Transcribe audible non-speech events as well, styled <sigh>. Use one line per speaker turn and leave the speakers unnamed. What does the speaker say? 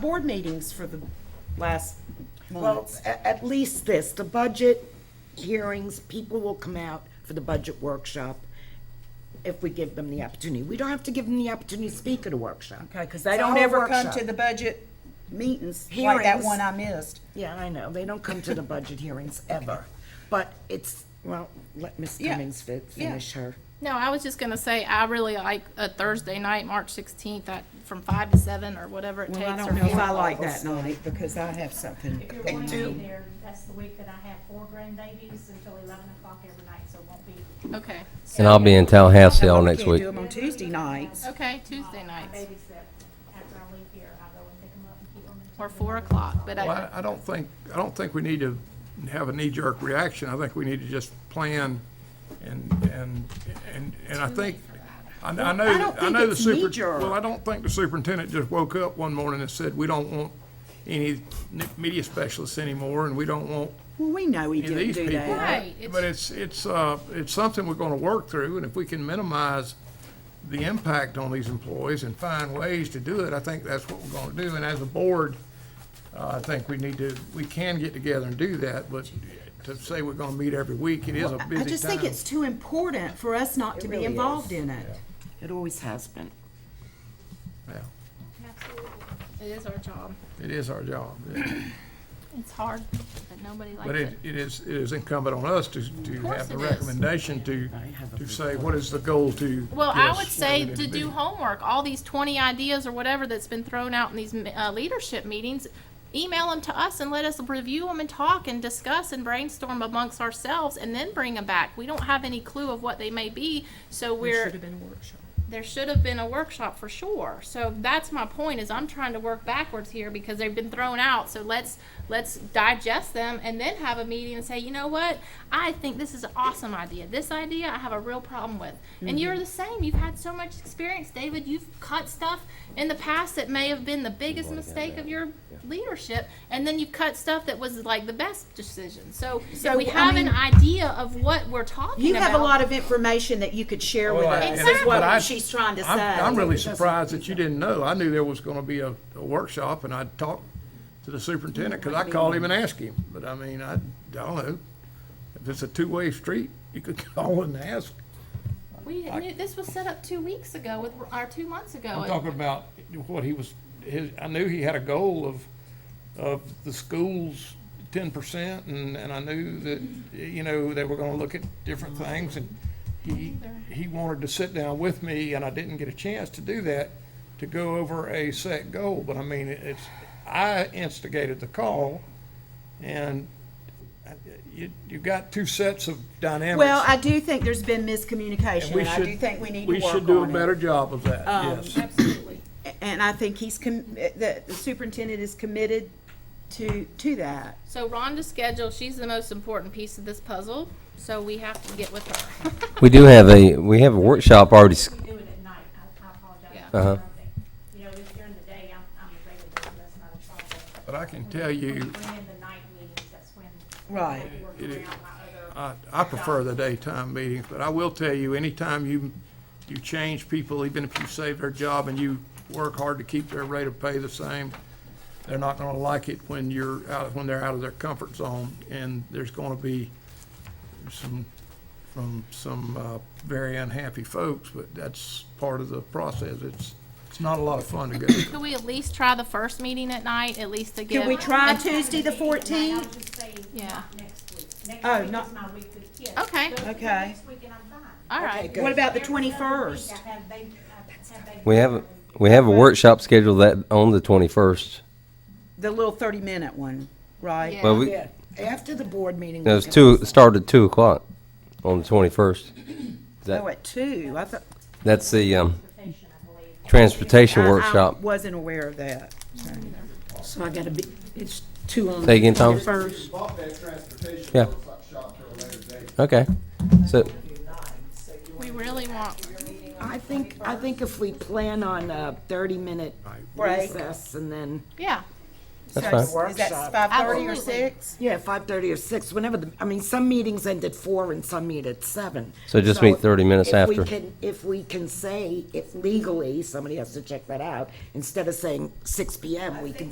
board meetings for the last, well, a- at least this, the budget hearings, people will come out for the budget workshop if we give them the opportunity. We don't have to give them the opportunity to speak at a workshop.
Okay, because
It's
they
a
don't
whole
ever come
workshop.
to the budget meetings like that
Hearings.
one I missed.
Yeah, I know, they don't come to the
<laughs>
budget hearings ever, but it's, well, let Ms.
Yeah,
Cummings fi-
yeah.
finish her.
No, I was just gonna say, I really like a Thursday night, March sixteenth, at, from five to seven, or whatever it takes.
Well, I
or
don't know if I
four.
like that night because I have something.
You're going to be there, that's the week that I have four grandbabies until eleven o'clock every night, so it won't be. uh,
Okay,
And I'll be in town house sale
I
next
can't do
week.
them on Tuesday nights.
okay, Tuesday
I
nights,
babysit after I leave here, I go and pick them up and keep them.
or four o'clock, but uh,
Well,
I,
I- I don't think, I don't think we need to have a knee-jerk reaction. I think we need to just plan and, and, and, and I think, I I know,
I don't
I
think
know the
it's
super.
knee-jerk.
Well, I don't think the superintendent just woke up one morning and said, we don't want any n- media specialists anymore and we don't want
Well, we know he
any of
didn't
these
do
people.
that.
Right, it's-
But it's, it's, uh, it's something we're gonna work through and if we can minimize the impact on these employees and find ways to do it, I think that's what we're gonna do. And as a board, uh, I think we need to, we can get together and do that, but to say we're gonna meet every week, it is a busy time.
I just think it's too important for us not to be involved in it.
It always has been.
Yeah,
it is our job.
It is our job.
It's hard, but nobody likes
But
it.
it, it is, it is incumbent on us to, to
course
have the
it is.
recommendation to, to say, what is the goal to?
Well, I
this,
would
what
say
it is
to do
be.
homework, all these twenty ideas or whatever that's been thrown out in these uh, leadership meetings, email them to us and let us review them and talk and discuss and brainstorm amongst ourselves and then bring them back. We don't have any clue of what they may be, so we're. There should have been a workshop. There should have been a workshop for sure. So that's my point is I'm trying to work backwards here because they've been thrown out. So let's, let's digest them and then have a meeting and say, you know what? I think this is an awesome idea. This idea I have a real problem with. And
Mm-hmm.
you're the same. You've had so much experience, David. You've cut stuff in the past that may have been the biggest mistake of your leadership, and then you cut stuff that was like the best decision. So,
So,
we
I
have
mean-
an idea of what we're talking
You
about.
have a lot of information that you could share with
Well, Oh, I-
us,
and-
is
but I-
what she's trying to say.
I'm- I'm really surprised that you didn't know. I knew there was gonna be a, a workshop, and I talked to the superintendent, because I called him and asked him, but I mean, I, I don't know. If it's a two-way street, you could <laughs> call and ask.
We knew, this was set up two weeks ago with our two months ago.
I'm talking about what he was, his, I knew he had a goal of, of the schools ten percent, and, and I knew that, you know, they were gonna look at different things, and he, he wanted to sit down with me, and I didn't get a chance to do that, to go over a set goal, but I mean, it's, I instigated the call, and uh, you, you got two sets of dynamics.
Well, I do think there's been
and
miscommunication,
we
and I
should-
do think we need to work on it.
We should do a better job of that, yes.
Absolutely.
And I think he's, com- eh, the the superintendent is committed to, to that.
So Rhonda's schedule, she's the most important piece of this puzzle, so we have to get with her. <laughs>
We do have a, we have a workshop already, s-
We do it at night, I I apologize.
Yeah.
Uh-huh.
You know, if during the day, I'm, I'm available, so that's not a problem.
But I can tell
When
you-
we bring in the night meetings, that's when.
Right.
I'll be working around my other-
I, I prefer the daytime meetings, but I will tell you, anytime you, you change people, even if you save their job and you work hard to keep their rate of pay the same, they're not gonna like it when you're out, when they're out of their comfort zone, and there's gonna be some, from some, uh, very unhappy folks, but that's part of the process. It's, it's not a lot of fun to go through.
Could we at least try the first meeting at night, at least to give?
Can we try Tuesday the fourteenth?
I'll just say
Yeah.
not next week.
Oh,
Next week
not-
is my week with kids.
Okay.
Those are
Okay.
Next week and I'm fine.
All right.
What about the
Every other week,
twenty-first?
I have baby- I have baby
we have,
showers.
we have a workshop scheduled that, on the twenty-first.
The little thirty-minute one, right?
Well, we,
Yeah, after the board meeting.
it was two, it started two o'clock on the twenty-first.
Oh, at two, I thought.
That's the, um, transportation
I- I
workshop.
Wasn't aware of that.
So I gotta be, it's two on
Say again, Thomas?
first.
bought that transportation
Yeah.
workshop shop to a later date.
Okay. So,
We really want,
I think, I think if we plan on a thirty-minute
Break.
recess and then
yeah,
That's
So
fine.
is- Is that
Workshop.
five thirty or
Absolutely.
six?
Yeah, five thirty or six, whenever the, I mean, some meetings end at four and some meet at seven.
So just meet 30 minutes
if we
after.
can- If we can say, if legally, somebody has to check that out, instead of saying six PM, we can